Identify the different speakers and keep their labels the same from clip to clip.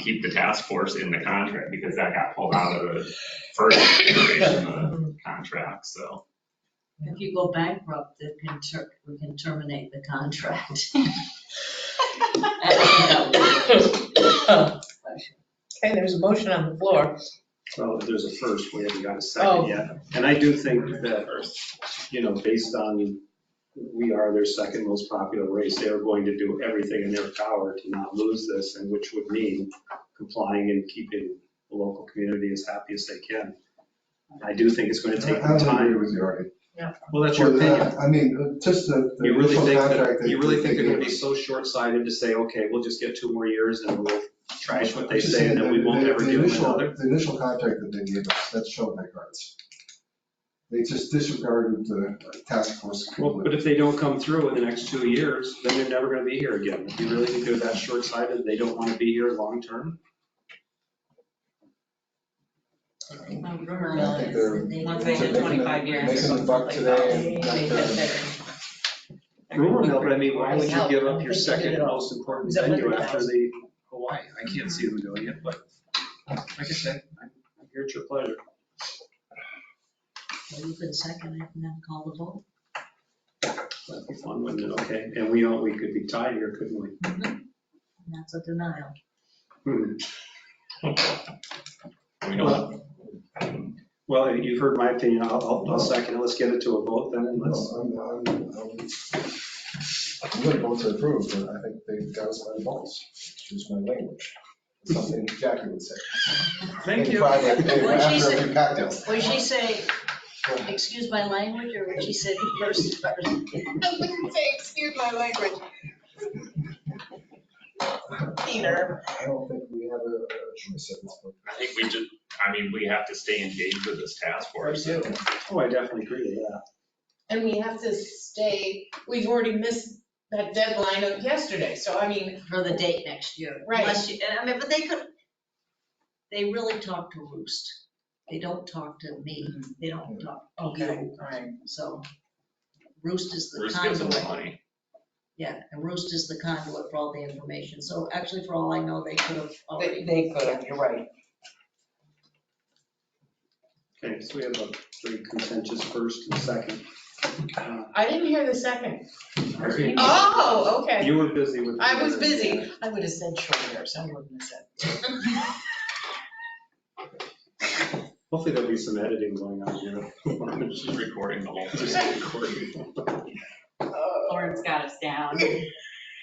Speaker 1: keep the task force in the contract because that got pulled out of the first iteration of the contract, so.
Speaker 2: If you go bankrupt, it can ter, we can terminate the contract.
Speaker 3: Okay, there's a motion on the floor.
Speaker 4: Well, if there's a first, we haven't got a
Speaker 3: Oh.
Speaker 4: second yet. And I do think that, you know, based on we are their second most popular race, they are going to do everything in their power to not lose this, and which would mean complying and keeping the local community as happy as they can. I do think it's going to take
Speaker 5: I
Speaker 4: them
Speaker 5: would agree
Speaker 4: time.
Speaker 5: with you, Artie.
Speaker 4: Well, that's your
Speaker 5: For that,
Speaker 4: opinion.
Speaker 5: I mean, uh, just the. the
Speaker 4: You really
Speaker 5: initial
Speaker 4: think,
Speaker 5: contract
Speaker 4: that-
Speaker 5: that
Speaker 4: you really
Speaker 5: they
Speaker 4: think they're going to be
Speaker 5: gave us.
Speaker 4: so short-sighted to say, okay, we'll just get two more years and we'll trash what
Speaker 5: I'm
Speaker 4: they
Speaker 5: just
Speaker 4: say and then we
Speaker 5: that
Speaker 4: won't
Speaker 5: the-
Speaker 4: ever
Speaker 5: the
Speaker 4: do
Speaker 5: initial-
Speaker 4: another?
Speaker 5: The initial contract that they gave us, that showed their cards. They just disregarded the task force
Speaker 4: Well,
Speaker 5: completely.
Speaker 4: but if they don't come through in the next two years, then they're never gonna be here again. If you really think they're that short-sighted, they don't wanna be here long-term?
Speaker 2: My
Speaker 5: I
Speaker 2: rumor
Speaker 5: think
Speaker 2: is
Speaker 5: they're-
Speaker 2: that they.
Speaker 6: Once they did
Speaker 5: Making a-
Speaker 6: 25 years or
Speaker 5: Making the
Speaker 6: something
Speaker 5: buck
Speaker 6: like
Speaker 5: today. and got the-
Speaker 4: Rumor mill, but I mean, why would you give up your second most important venue after the Hawaii? I can't see them doing it, but like I said, I'm I'm here at your pleasure.
Speaker 2: Well, You can second it and then call the vote.
Speaker 4: That'd be fun, wouldn't it? Okay, and we, all- we could be tied here, couldn't we?
Speaker 2: And that's a denial.
Speaker 4: Hmm.
Speaker 1: We don't, I'm
Speaker 4: Well, you've heard my opinion. I'll, I'll- I'll second it. Let's get it to a vote then and
Speaker 5: No,
Speaker 4: let's,
Speaker 5: I'm, I'm, I'm- I'm gonna vote to approve, but I think they got us by the balls, excuse my language. Something Jackie would say.
Speaker 4: thank
Speaker 5: In
Speaker 4: you.
Speaker 5: private, they were
Speaker 2: What'd she
Speaker 5: after
Speaker 2: say?
Speaker 5: every cocktail.
Speaker 2: Would she say, excuse my language, or would she say first person?
Speaker 6: I wouldn't say, excuse my language. Peter.
Speaker 5: I don't think we have a a choice at this point.
Speaker 1: I think we just, I mean, we have to stay engaged with this task force.
Speaker 4: Oh, I definitely agree with that.
Speaker 6: And we have to stay, we've already missed that deadline of yesterday, so I mean,
Speaker 2: For the date next year.
Speaker 6: Right.
Speaker 2: Unless you, and I mean, but they could, they really talk to Roost. They don't talk to me. They don't talk to you.
Speaker 6: right.
Speaker 2: So Roost is the
Speaker 1: Bruce gives them the
Speaker 2: conduit,
Speaker 1: money.
Speaker 2: yeah, and Roost is the conduit for all the information. So actually, for all I know, they could have
Speaker 6: They,
Speaker 2: already.
Speaker 6: they could have, you're right.
Speaker 4: Okay, so we have a very contentious first and second. Uh,
Speaker 6: I didn't hear the second.
Speaker 4: Very-
Speaker 6: Oh, okay.
Speaker 4: You were busy with.
Speaker 6: I was busy. I would have said short hair, so I wouldn't have said.
Speaker 4: Hopefully there'll be some editing going on here.
Speaker 1: She's recording the whole thing.
Speaker 4: Just recording.
Speaker 7: Lauren's got us down.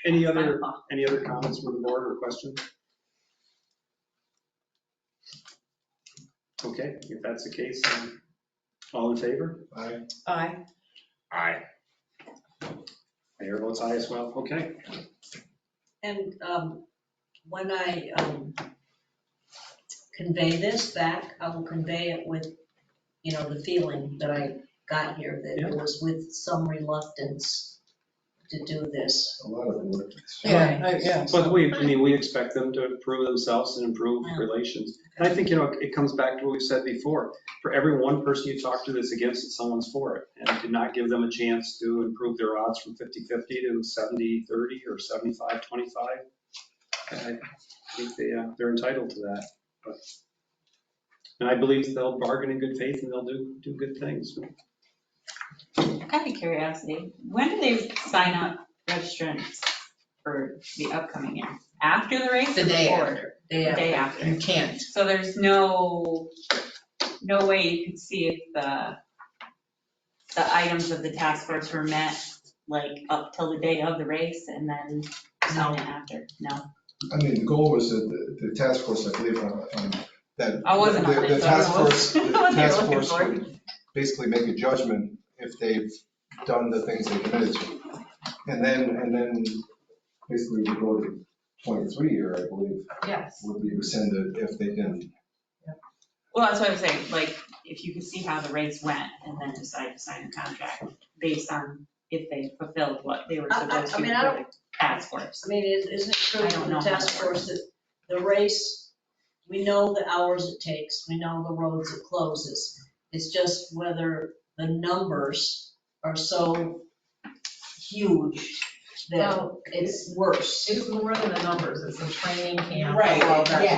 Speaker 4: Any other, any other comments from the board or questions? Okay, if that's the case, um, all in favor?
Speaker 5: I,
Speaker 6: Aye.
Speaker 1: Aye.
Speaker 4: Mayor votes aye as well. Okay,
Speaker 2: And um, when I um, convey this back, I will convey it with, you know, the feeling that I got here, that it was with some reluctance to do this.
Speaker 5: a lot of reluctance.
Speaker 6: Yeah, I-
Speaker 4: yeah. But we, I mean, we expect them to improve themselves and improve relations. And I think, you know, it comes back to what we said before. For every one person you talk to that's against it, someone's for it. And to not give them a chance to improve their odds from 50-50 to 70-30 or 75-25. I think they, uh, they're entitled to that. But- And I believe they'll bargain in good faith and they'll do, do good things.
Speaker 7: Kind of curiosity, when do they sign up registrants for the upcoming year? After the race
Speaker 6: The
Speaker 7: or
Speaker 6: day
Speaker 7: before?
Speaker 6: after.
Speaker 7: The
Speaker 2: They,
Speaker 7: day after.
Speaker 6: You can't.
Speaker 7: So there's no, no way you could see if the, the items of the task force were met, like up till the day of the race and then sign it after? No?
Speaker 5: I mean, the goal was that the, the task force, I believe, on, on that.
Speaker 7: I wasn't on
Speaker 5: the-
Speaker 7: it,
Speaker 5: The
Speaker 7: so I
Speaker 5: task
Speaker 7: don't know
Speaker 5: force, the
Speaker 7: what they were
Speaker 5: task
Speaker 7: looking
Speaker 5: force
Speaker 7: for.
Speaker 5: would basically make a judgment if they've done the things they committed to. And then, and then basically we go to twenty-three year, I believe,
Speaker 7: Yes.
Speaker 5: would be rescinded if they didn't.
Speaker 7: Well, that's what I'm saying, like, if you could see how the race went and then decide to sign a contract based on if they fulfilled what they were
Speaker 2: I- I-
Speaker 7: supposed
Speaker 2: I
Speaker 7: to
Speaker 2: mean, I don't-
Speaker 7: for the task force.
Speaker 2: I mean, is- isn't it true
Speaker 7: I don't
Speaker 2: in the
Speaker 7: know how
Speaker 2: task
Speaker 7: that works.
Speaker 2: force that the race, we know the hours it takes, we know the roads it closes. It's just whether the numbers are so huge that
Speaker 8: Well,
Speaker 2: it's worse.
Speaker 8: It's more than the numbers, it's the training camp.
Speaker 6: Right,
Speaker 8: all that
Speaker 6: yeah.